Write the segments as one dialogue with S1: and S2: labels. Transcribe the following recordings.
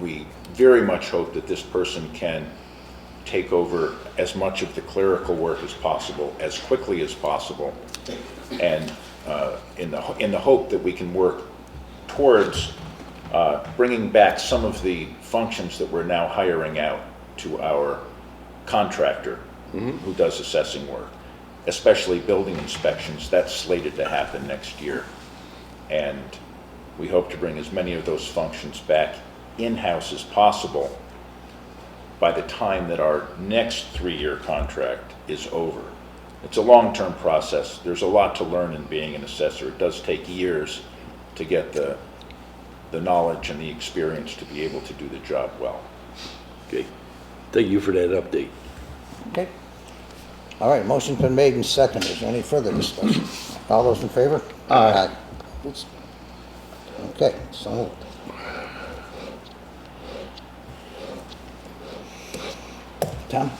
S1: we very much hope that this person can take over as much of the clerical work as possible, as quickly as possible, and uh, in the, in the hope that we can work towards uh, bringing back some of the functions that we're now hiring out to our contractor who does assessing work, especially building inspections. That's slated to happen next year. And we hope to bring as many of those functions back in-house as possible by the time that our next three-year contract is over. It's a long-term process. There's a lot to learn in being an assessor. It does take years to get the, the knowledge and the experience to be able to do the job well.
S2: Okay. Thank you for that update.
S3: Okay. All right, motion's been made and seconded. Is there any further discussion? All those in favor? Aye. Oops. Okay, so moved. Tom?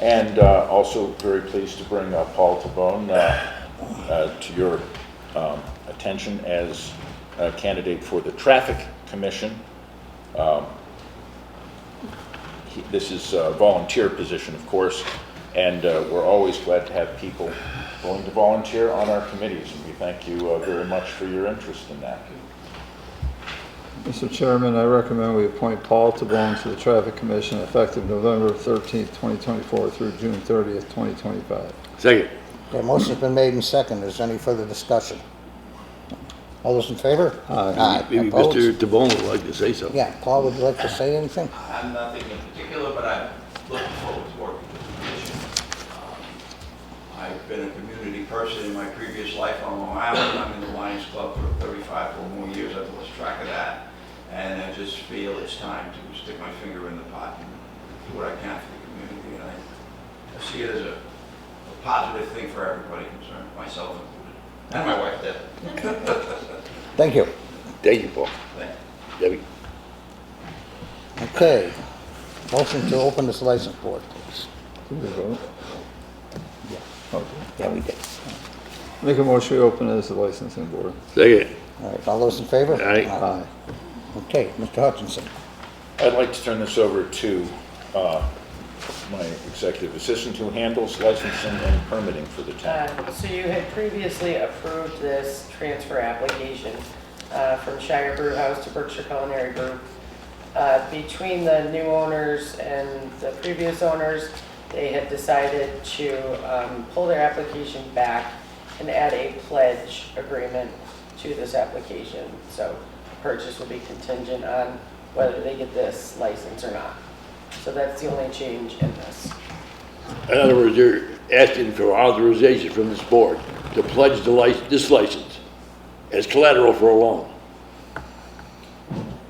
S1: And uh, also very pleased to bring uh, Paul Tabone uh, uh, to your um, attention as a candidate for the Traffic Commission. Um, he- This is a volunteer position, of course, and uh, we're always glad to have people willing to volunteer on our committees, and we thank you uh, very much for your interest in that.
S4: Mr. Chairman, I recommend we appoint Paul Tabone to the Traffic Commission effective November 13th, 2024 through June 30th, 2025.
S2: Second.
S3: Okay, motion's been made and seconded. Is there any further discussion? All those in favor? Aye.
S2: Maybe
S3: Opposed?
S2: Mr. Tabone would like to say something.
S3: Yeah, Paul, would you like to say anything?
S5: I'm nothing in particular, but I'm looking forward to working with the commission. Um, I've been a community person in my previous life on Long Island. I'm in the Lions Club for 35 or more years. I've lost track of that. And I just feel it's time to stick my finger in the pot and do what I can for the community. And I- I see it as a a positive thing for everybody concerned, myself included, and my wife, Deb.
S3: Thank you.
S2: Thank you, Paul.
S5: Thank you.
S2: Debbie.
S3: Okay. Motion to open this license board, please.
S4: Did we vote? Okay.
S3: Yeah, we did.
S4: Make a motion to open as the licensing board.
S2: Second.
S3: All right, all those in favor?
S2: Aye.
S4: Aye.
S3: Okay, Mr. Hutchinson.
S1: I'd like to turn this over to uh, my executive assistant who handles licensing and permitting for the town.
S6: Um, So you had previously approved this transfer application uh, from Shire Brew House to Berkshire Culinary Group. Uh, Between the new owners and the previous owners, they had decided to um, pull their application back and add a pledge agreement to this application. So purchase will be contingent on whether they get this license or not. So that's the only change in this.
S2: In other words, you're asking for authorization from this board to pledge the license, this license as collateral for a loan.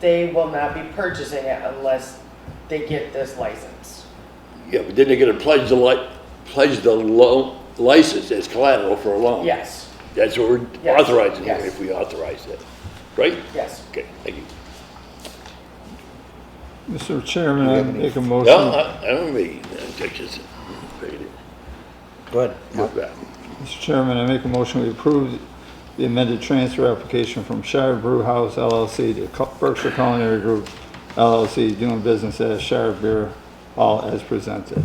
S6: they will not be purchasing it unless they get this license.
S2: Yeah, but then they're gonna pledge the li, pledge the loan, license as collateral for a loan.
S6: Yes,
S2: That's what we're
S6: Yes,
S2: authorizing here,
S6: yes.
S2: if we authorize that, right?
S6: yes.
S2: Okay, thank you.
S4: Mr. Chairman, I make a
S2: No,
S4: motion,
S2: I, I don't mean, I just,
S3: Good.
S2: go back.
S4: Mr. Chairman, I make a motion we approve the amended transfer application from Shire Brew House LLC to Cu- Berkshire Culinary Group LLC, doing business as Shire Beer Hall as presented.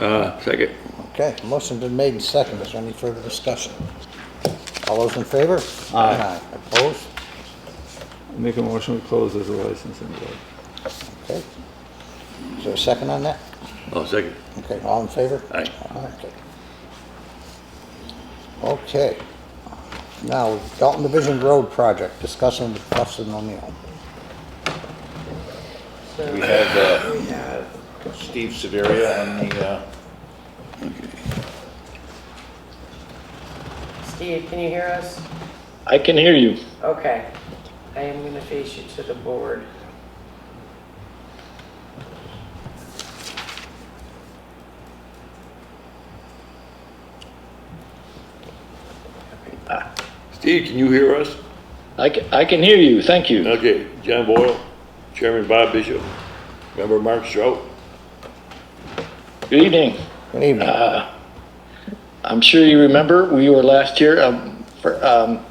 S2: Uh, second.
S3: Okay, motion been made and seconded. Is there any further discussion? All those in favor? Aye. Opposed?
S4: Make a motion we close as a licensing board.
S3: Okay. Is there a second on that?
S2: Oh, second.
S3: Okay, all in favor?
S2: Aye.
S3: Okay. Okay. Now, Dalton Division Road Project, discussing with Preston O'Neill.
S1: We
S6: So
S1: have uh, Steve Severia on the, uh,
S6: Steve, can you hear us?
S7: I can hear you.
S6: Okay. I am going to face you to the board.
S2: Steve, can you hear us?
S7: I can, I can hear you. Thank you.
S2: Okay, John Boyle, Chairman Bob Bishop, member Mark Strout.
S7: Good evening.
S3: Good evening.
S7: I'm sure you remember we were last here. Um, for, um,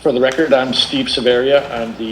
S7: for the record, I'm Steve Severia. I'm the